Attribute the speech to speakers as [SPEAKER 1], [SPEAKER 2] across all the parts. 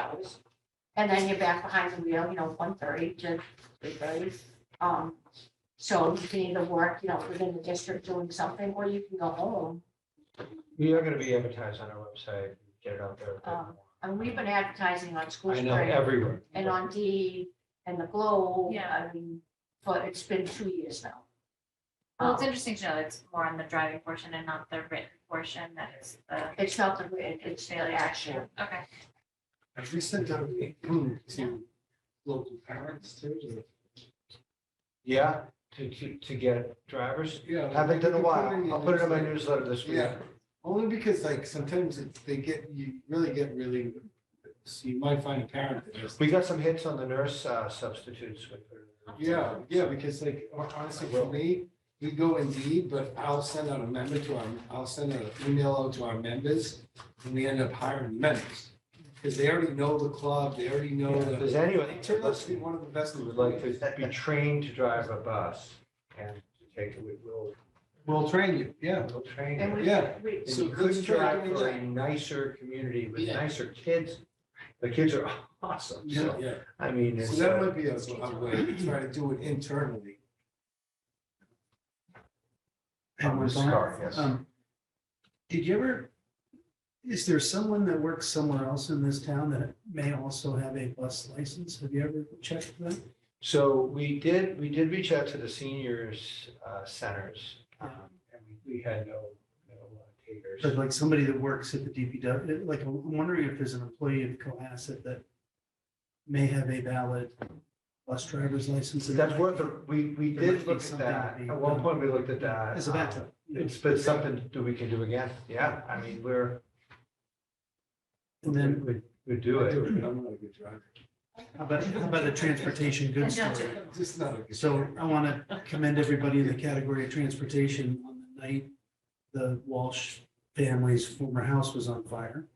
[SPEAKER 1] hours. And then you're back behind the wheel, you know, one thirty to three thirty. Um, so you can either work, you know, within the district doing something, or you can go home.
[SPEAKER 2] We are gonna be advertised on our website, get it out there.
[SPEAKER 1] Um, And we've been advertising on school
[SPEAKER 2] I know,
[SPEAKER 1] spring
[SPEAKER 2] everywhere.
[SPEAKER 1] and on D and the Globe.
[SPEAKER 3] Yeah.
[SPEAKER 1] I mean, but it's been two years now.
[SPEAKER 3] Well, it's
[SPEAKER 1] Um,
[SPEAKER 3] interesting to know it's more on the driving portion and not the written portion that is the,
[SPEAKER 1] It's not the, written, it's the action.
[SPEAKER 3] okay.
[SPEAKER 4] Have we sent out to local parents too?
[SPEAKER 2] Yeah, to, to, to get drivers.
[SPEAKER 4] Yeah.
[SPEAKER 2] Haven't done a while. I'll put it in my
[SPEAKER 4] news.
[SPEAKER 2] newsletter this week.
[SPEAKER 4] Yeah, only because like sometimes it's- they get, you really get really, so you might find a parent that just.
[SPEAKER 2] We got some hits on the nurse uh, substitutes. with her.
[SPEAKER 4] Yeah, yeah, because like hon- honestly, for me, we go indeed, but I'll send out a member to our, I'll send out an email out to our members and we end up hiring members. Because they already know the club, they already know
[SPEAKER 2] If
[SPEAKER 4] the.
[SPEAKER 2] there's anyone
[SPEAKER 4] It turned out to be
[SPEAKER 2] listening
[SPEAKER 4] one of the best.
[SPEAKER 2] who would like to be trained to drive a bus and to take, we will,
[SPEAKER 4] We'll train you, yeah.
[SPEAKER 2] we'll train.
[SPEAKER 1] And
[SPEAKER 2] you.
[SPEAKER 1] we,
[SPEAKER 4] Yeah.
[SPEAKER 1] we,
[SPEAKER 2] And
[SPEAKER 4] So
[SPEAKER 2] you couldn't
[SPEAKER 4] let's try
[SPEAKER 2] drive
[SPEAKER 4] doing
[SPEAKER 2] for a
[SPEAKER 4] that.
[SPEAKER 2] nicer community with
[SPEAKER 4] Yeah.
[SPEAKER 2] nicer kids. The kids are awesome.
[SPEAKER 4] Yeah,
[SPEAKER 2] So,
[SPEAKER 4] yeah.
[SPEAKER 2] I mean,
[SPEAKER 4] So
[SPEAKER 2] it's,
[SPEAKER 4] that
[SPEAKER 2] uh,
[SPEAKER 4] might be a, a way to try to do it internally.
[SPEAKER 2] I'm a scar, yes.
[SPEAKER 5] Um, Did you ever, is there someone that works somewhere else in this town that may also have a bus license? Have you ever checked that?
[SPEAKER 2] So we did, we did reach out to the seniors uh, centers. um, And we- we had no, no uh, takers.
[SPEAKER 5] But like somebody that works at the DPW, like I'm wondering if there's an employee of Cohasset that may have a valid bus driver's license.
[SPEAKER 2] So That's worth, a- we, we
[SPEAKER 5] There might
[SPEAKER 2] did
[SPEAKER 5] be
[SPEAKER 2] look at
[SPEAKER 5] something
[SPEAKER 2] that.
[SPEAKER 5] to be
[SPEAKER 2] At one
[SPEAKER 5] done.
[SPEAKER 2] point, we looked at that.
[SPEAKER 5] As a
[SPEAKER 2] um,
[SPEAKER 5] backup. you know.
[SPEAKER 2] It's, but it's something that we can do again. Yeah, I mean, we're,
[SPEAKER 5] And then
[SPEAKER 2] we, we do
[SPEAKER 4] I do
[SPEAKER 2] it.
[SPEAKER 4] it, but I'm not a good driver.
[SPEAKER 5] how about, how about a transportation goods
[SPEAKER 3] And
[SPEAKER 5] store?
[SPEAKER 3] not to-
[SPEAKER 4] Just not a good.
[SPEAKER 5] So
[SPEAKER 4] driver.
[SPEAKER 5] I want to commend everybody in the category of transportation. On the night the Walsh family's former house was on fire,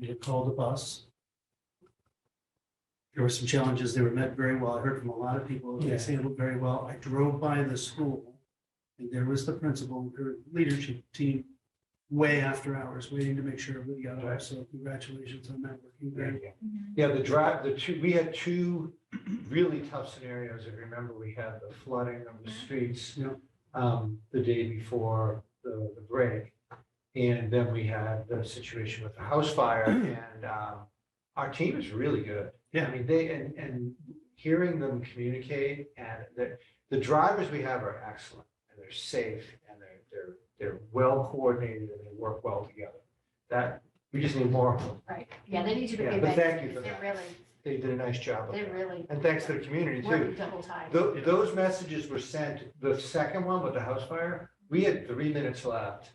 [SPEAKER 5] we had called a bus. There were some challenges. They were met very well. I heard from a lot of people. It was handled very well. I drove by the school and there was the principal and her leadership team way after hours, waiting to make sure everybody got off. So congratulations on that. working great.
[SPEAKER 2] Yeah, the drive, the two, we had two really tough scenarios. If you remember, we had the flooding of the streets
[SPEAKER 5] Yeah.
[SPEAKER 2] um, the day before the, the break. And then we had the situation with the house fire and um, our team is really good.
[SPEAKER 5] Yeah.
[SPEAKER 2] I mean, they, and, and hearing them communicate and the, the drivers we have are excellent and they're safe and they're, they're, they're well coordinated and they work well together. That, we just need more of them.
[SPEAKER 1] right, yeah, they need to be.
[SPEAKER 2] Yeah, but thank you for
[SPEAKER 1] They
[SPEAKER 2] that.
[SPEAKER 1] really,
[SPEAKER 2] They did a nice job of
[SPEAKER 1] they
[SPEAKER 2] that.
[SPEAKER 1] really.
[SPEAKER 2] And thanks to the community too.
[SPEAKER 1] Working double time.
[SPEAKER 2] Tho- Those messages were sent, the second one with the house fire, we had three minutes left.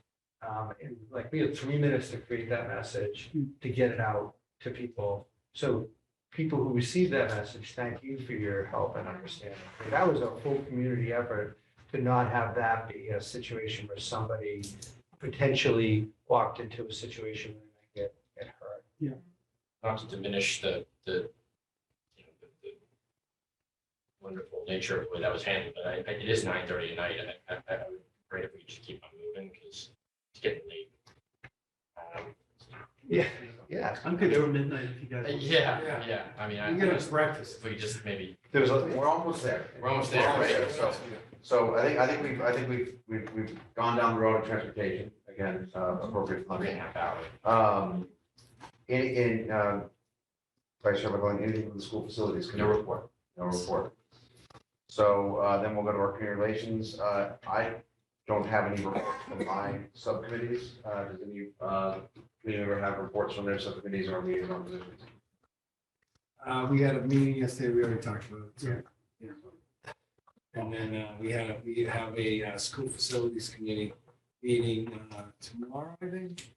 [SPEAKER 2] Um, And like, we had three minutes to create that message, to get it out to people. So people who received that message, thank you for your help and understanding. And That was a full community effort to not have that be a situation where somebody potentially walked into a situation where they get, get hurt.
[SPEAKER 6] not to diminish the, the, you know, the, the wonderful nature of the way that was handled, but I, I- it is nine thirty at night, and I, I, I would pray if we just keep on moving, because it's getting late. Um,
[SPEAKER 2] Yeah, yeah.
[SPEAKER 5] I'm good till midnight if you guys. want.
[SPEAKER 6] Yeah,
[SPEAKER 4] Yeah.
[SPEAKER 6] yeah, I mean, I,
[SPEAKER 4] We gotta practice.
[SPEAKER 6] if we just maybe,
[SPEAKER 2] There was, a-
[SPEAKER 7] We're almost there.
[SPEAKER 6] we're almost there, right? So,
[SPEAKER 7] So I think, I think we've, I think we've, we've, we've gone down the road of transportation, again, it's, uh, appropriate for
[SPEAKER 6] three
[SPEAKER 7] Monday.
[SPEAKER 6] and a half hours.
[SPEAKER 7] Um, in, in, um, Vice Chair McGlynn, anything from the school facilities? committee?
[SPEAKER 6] No report.
[SPEAKER 7] No report. So, uh, then we'll go to our community relations, uh, I don't have any reports from my subcommittees, uh, does any, uh, committee member have reports from their subcommittees or liaison positions?
[SPEAKER 4] Uh, we had a meeting yesterday, we already talked about it. so-
[SPEAKER 5] Yeah.
[SPEAKER 4] yeah. And then, uh, we had, a- we have a, uh, school facilities committee meeting, uh, tomorrow, I think.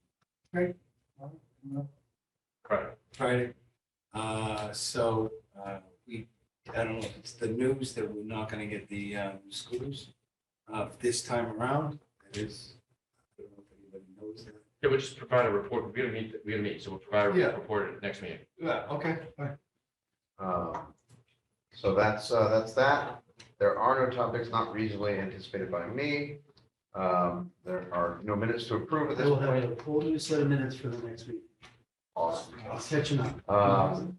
[SPEAKER 4] Right? Tomorrow? No.
[SPEAKER 6] Correct.
[SPEAKER 4] Friday. Uh, so, uh, we, I don't know if it's the news that we're not gonna get the, um, schools, uh, this time around, it is. I don't know if anybody knows that.
[SPEAKER 6] Yeah, we'll just provide a report, we're gonna meet, we're gonna meet, so we'll provide
[SPEAKER 4] Yeah.
[SPEAKER 6] a report at the next meeting.
[SPEAKER 4] Yeah, okay, all right.
[SPEAKER 7] Um, So that's, uh, that's that. There are no topics not reasonably anticipated by me. Um, There are no minutes to approve at this
[SPEAKER 5] We'll have
[SPEAKER 7] point.
[SPEAKER 5] a whole new set of minutes for the next week.
[SPEAKER 2] Awesome.
[SPEAKER 5] Catching up.
[SPEAKER 2] Um,